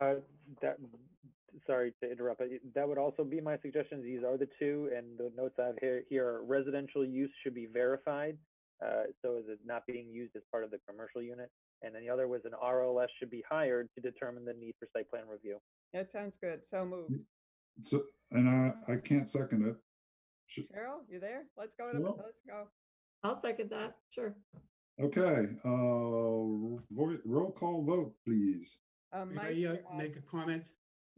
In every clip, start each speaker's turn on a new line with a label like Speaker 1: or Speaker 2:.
Speaker 1: Uh, that, sorry to interrupt, but that would also be my suggestions. These are the two, and the notes I have here, here are residential use should be verified. Uh, so is it not being used as part of the commercial unit? And then the other was an RLS should be hired to determine the need for site plan review.
Speaker 2: That sounds good. So moved.
Speaker 3: So, and I, I can't second it.
Speaker 2: Cheryl, you there? Let's go. to-
Speaker 3: Cheryl?
Speaker 2: Let's go.
Speaker 4: I'll second that, sure.
Speaker 3: Okay, uh, vo- roll call vote, please.
Speaker 2: Um,
Speaker 5: May I uh,
Speaker 2: Meister, aye.
Speaker 5: make a comment?
Speaker 3: Uh,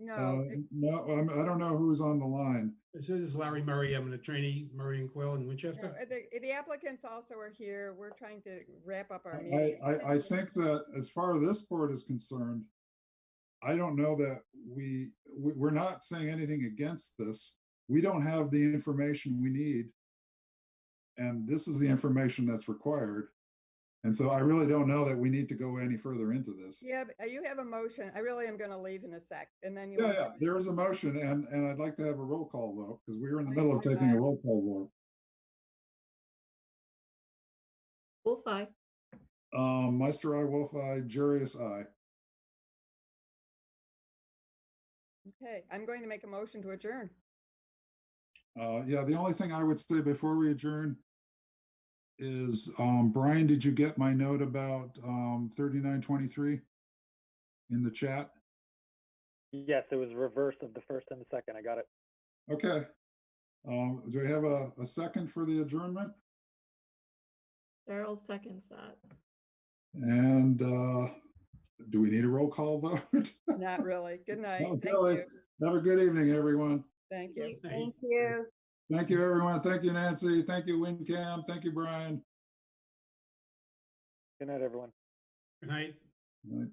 Speaker 2: No, it-
Speaker 3: no, I'm, I don't know who's on the line.
Speaker 5: This is Larry Murray. I'm an attorney, Murray and Quill in
Speaker 2: no,
Speaker 5: Winchester.
Speaker 2: uh, the the applicants also are here. We're trying to wrap up our
Speaker 3: I,
Speaker 2: meeting.
Speaker 3: I, I think that as far as this board is concerned, I don't know that we, we, we're not saying anything against this. We don't have the information we need. And this is the information that's required. And so I really don't know that we need to go any further into this.
Speaker 2: Yeah, but, uh, you have a motion. I really am going to leave in a sec and then you.
Speaker 3: Yeah,
Speaker 2: will
Speaker 3: yeah,
Speaker 2: have it.
Speaker 3: there is a motion and, and I'd like to have a roll call vote because we were in the
Speaker 2: I
Speaker 3: middle of
Speaker 2: know
Speaker 3: taking a
Speaker 2: that.
Speaker 3: roll call
Speaker 4: Wolf eye,
Speaker 3: vote. Um, Meister, I, Wolf, I, Jarius, I.
Speaker 2: Okay, I'm going to make a motion to adjourn.
Speaker 3: Uh, yeah, the only thing I would say before we adjourn is, um, Brian, did you get my note about, um, thirty-nine twenty-three? In the chat?
Speaker 1: Yes, it was reverse of the first and the second. I got it.
Speaker 3: Okay. Um, do we have a, a second for the adjournment?
Speaker 4: Cheryl seconds that.
Speaker 3: And, uh, do we need a roll call vote?
Speaker 2: Not really. Good night.
Speaker 3: Not
Speaker 2: Thank
Speaker 3: really.
Speaker 2: you.
Speaker 3: Have a good evening, everyone.
Speaker 2: Thank you.
Speaker 5: Hey.
Speaker 4: you.
Speaker 3: Thank you, everyone. Thank you, Nancy. Thank you, WinCam. Thank you, Brian.
Speaker 1: Good night, everyone.
Speaker 5: Good night.
Speaker 3: Right.